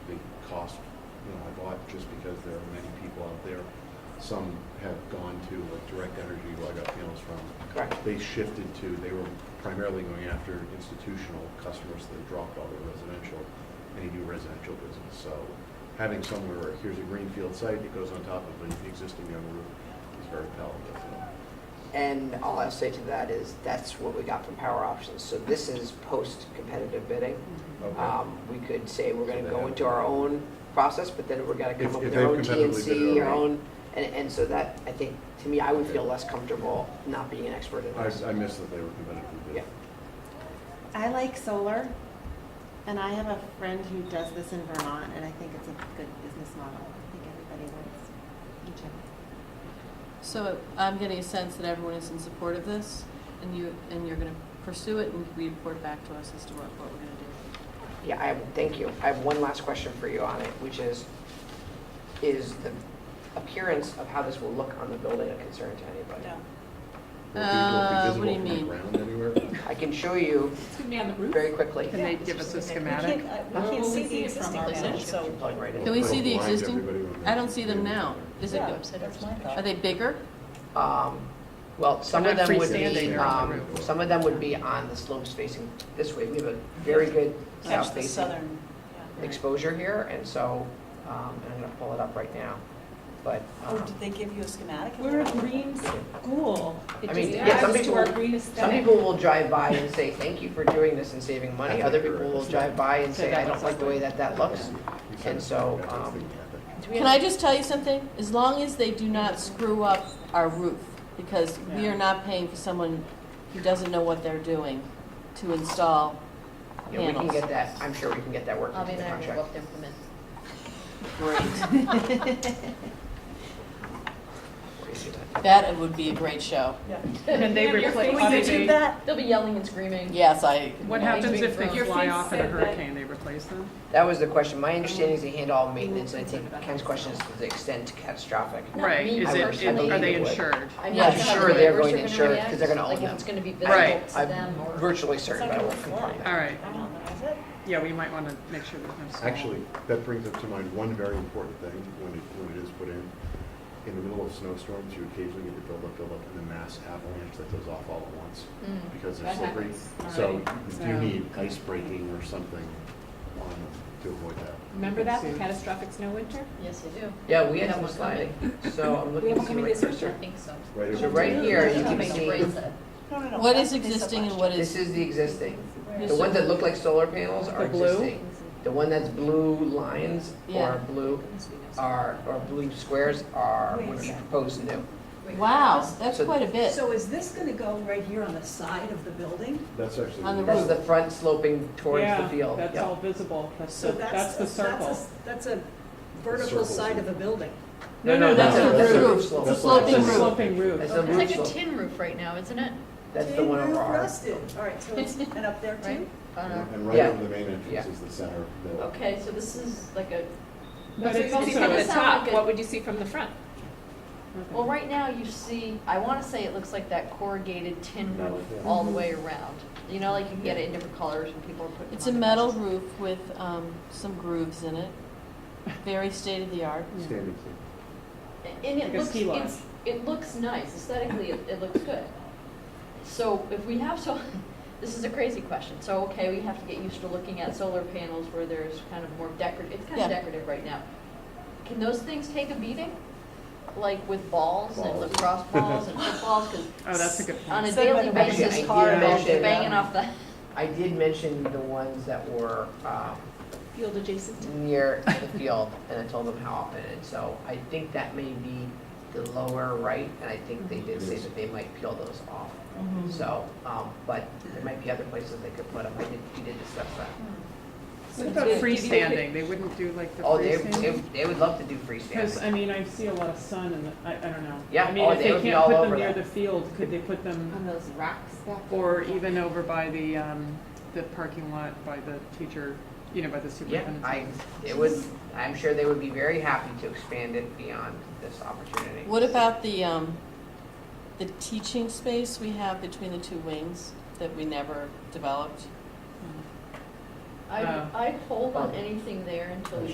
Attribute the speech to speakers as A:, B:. A: cost, you know, a lot just because there are many people out there. Some have gone to like direct energy, who I got panels from.
B: Correct.
A: They shifted to, they were primarily going after institutional customers that dropped all their residential, any new residential business. So having somewhere, where here's a greenfield site that goes on top of an existing young roof is very palatable. to them.
B: And all I'll say to that is, that's what we got from Power Options. So this is post-competitive bidding. Um, We could say we're going to go into our own process, but then we're going to come
A: If-
B: up
A: if
B: with our own
A: they've competitively bid it
B: TNC, our
A: already.
B: own, and, and so that, I think, to me, I would feel less comfortable not being an expert in this.
A: I, I missed that they were competitive.
B: Yeah.
C: I like solar, and I have a friend who does this in Vermont, and I think it's a good business model. I think everybody wins. each other.
D: So I'm getting a sense that everyone is in support of this, and you, and you're gonna pursue it and report back to us as to what, what we're gonna do.
B: Yeah, I, have- thank you. I have one last question for you on it, which is, is the appearance of how this will look on the building a concern to anybody?
A: Will it
D: Uh,
A: be- will
D: what
A: it be
D: do you
A: visible from
D: mean?
A: the ground anywhere?
B: I can show you
E: It's gonna be on the roof.
B: very quickly.
F: Can they give us a
G: We
F: schematic?
G: can't,
E: Where
G: uh, we can't
E: will
G: see
E: we
G: the
E: see it from
G: existing
E: our
G: building,
E: vantage?
G: so.
B: Plug right in.
D: Can we
A: Put a
D: see the
A: blind
D: existing?
A: everybody when
D: I
A: they're-
D: don't see them now. Is it,
G: Yeah,
D: are
G: that's my thought.
D: they bigger?
B: Um, Well, some
F: They're
B: of
F: not
B: them would
F: freestanding,
B: be,
F: they're on the
B: um,
A: roof.
B: some of them would be on the slopes facing this way. We have a very good
G: Catch
B: south
G: the
B: facing
G: southern, yeah.
B: exposure here, and so, um, and I'm gonna pull it up right now, but,
G: Oh,
B: um,
G: did they give you a schematic? of
F: We're a
G: that?
F: green school.
B: Uh-huh. I
F: It
B: mean,
F: just
B: yeah, some
F: adds to our
B: people- some
F: green aesthetic.
B: people will drive by and say, thank you for doing this and saving money. Other people will drive by and say, I don't like the way that that looks.
A: You said
B: And so,
A: that's
B: um,
A: the ethic.
D: Can I just tell you something? As long as they do not screw up our roof, because we are not paying for someone who doesn't know what they're doing to install
B: You know, we can
D: panels.
B: get that, I'm sure we can get that worked
H: I'll be
B: into the
H: there to go
B: contract.
H: up there for a minute.
D: Great. That would be a great show.
F: And they replace,
G: Can we
F: they-
G: do that?
H: They'll be yelling and screaming.
D: Yes, I.
F: what happens if they
H: Your
F: fly
E: face
F: off in a
E: said that-
F: hurricane, they replace them?
B: That was the question. My understanding is they handle all maintenance, and I think Ken's question is to the extent to catastrophic.
F: Right,
H: me
F: is
B: I
F: it,
B: personally
F: are they
B: would.
F: insured?
H: I'm
D: Yeah,
H: not how
D: sure
H: the
B: they're
H: neighbors
B: going to
H: are
B: insure it 'cause they're gonna
H: react,
B: own
H: Like if it's
B: it.
H: gonna be
F: Right.
H: visible to them
B: I'm
H: or.
B: virtually certain, but I won't
G: It's not
B: confirm
G: gonna
F: All
B: that.
F: right,
G: I don't know, is it?
F: yeah, we might want to make sure there's no. small-
A: Actually, that brings up to mind one very important thing when it, when it is put in. In the middle of snowstorms, you occasionally get the buildup, buildup, and the mass avalanche that goes off all at once
H: Mm.
A: because they're
E: That
A: slippery.
E: happens
A: So
E: already.
A: you
E: So-
A: need ice breaking or something on them to avoid that.
E: Remember that, the catastrophic snow winter?
H: Yes, they do.
B: Yeah, we had
H: That
B: some
H: one's
B: sliding, so I'm looking to
E: haven't
B: see
E: come in
B: what.
E: this
H: I
E: winter.
H: think so.
A: Right
B: So
A: over
B: right
A: there.
B: here, you
H: They'll
B: can
H: make
B: see-
H: a raise it.
G: No, no, no.
D: What
G: that's
D: is
G: what they said
D: existing and
G: last
D: what
B: This
D: is,
B: is the existing. The
D: So-
B: ones that look like solar panels are
F: The blue?
B: existing. The one that's blue lines
D: Yeah.
B: or blue
G: year.
B: are, or blue squares are
G: Wait a
B: what is
G: second.
B: proposed new.
D: wow, that's
B: So-
D: quite a bit.
I: So is this going to go right here on the side of the building?
A: That's actually.
D: On the
B: That's the front sloping towards the field.
F: Yeah, that's
B: Yep.
F: all visible, that's,
I: So
F: the- that's the
I: a- that's a-
F: circle.
I: That's a vertical
A: Circles.
I: side of a building.
B: No, no, that's
D: no,
B: a, that's
D: that's
B: a
D: a-
B: roof
D: it's a
B: slope.
D: sloping
F: That's a
D: roof.
F: Sloping roof.
B: That's a
H: It's
B: roof
H: like a
B: slope.
H: tin roof right now, isn't it?
B: That's the one
I: Tin
B: over
I: roof
B: ours.
I: rusted. All right, so it's, and up there too?
H: Right? On our-
A: And right
B: Yeah.
A: over the main entrance
B: Yeah.
A: is the center of the building.
H: Okay, so this is like a,
E: But if you
H: also
E: see from the
H: gonna sound
E: top,
H: like a-
E: what would you see from the front?
H: well, right now you see, I wanna say it looks like that corrugated tin
A: Metal,
H: roof
A: yeah.
H: all the way around. You know, like you can get it in different colors when people are putting.
D: It's a
H: on their
D: metal
H: houses.
D: roof with um, some grooves in it. Very state of the art.
A: Standing.
H: And
F: Like
H: it
F: a
H: looks,
F: ski lodge.
H: it's, it looks nice, aesthetically, it, it looks good. So if we have so, this is a crazy question, so, okay, we have to get used to looking at solar panels where there's kind of more decorative, it's kind
D: Yeah.
H: of decorative right now. Can those things take a beating? Like with balls and
A: Balls.
H: lacrosse balls and footballs, cause
F: Oh, that's a good
H: on a
F: point.
H: daily
B: about the
H: basis,
B: idea
H: cars
B: of
H: are
B: it.
H: banging off the,
B: I did mention the ones that were, um,
E: Field adjacent to
B: near the field, and I told them how often, and so I think that may be the lower right, and I think they did say that they might peel those off. So, um, but there might be other places they could put them, I did, we did discuss that.
F: What about freestanding, they wouldn't do like the
B: Oh, they,
F: freestanding?
B: they, they would love to do
F: Because,
B: freestanding.
F: I mean, I see a lot of sun and, I, I don't know.
B: Yeah,
F: I mean,
B: oh,
F: if
B: they
F: they
B: would be
F: can't
B: all
F: put them
B: over
F: near
B: that.
F: the field, could they put them,
C: On those rocks back there?
F: or even over by the, um, the parking lot by the teacher, you know, by the
B: Yeah,
F: superintendent's
B: I,
F: office?
B: it would, I'm sure they would be very happy to expand it beyond this opportunity.
D: What about the, um, the teaching space we have between the two wings that we never developed?
H: I,
F: Oh.
H: I hold on anything there until we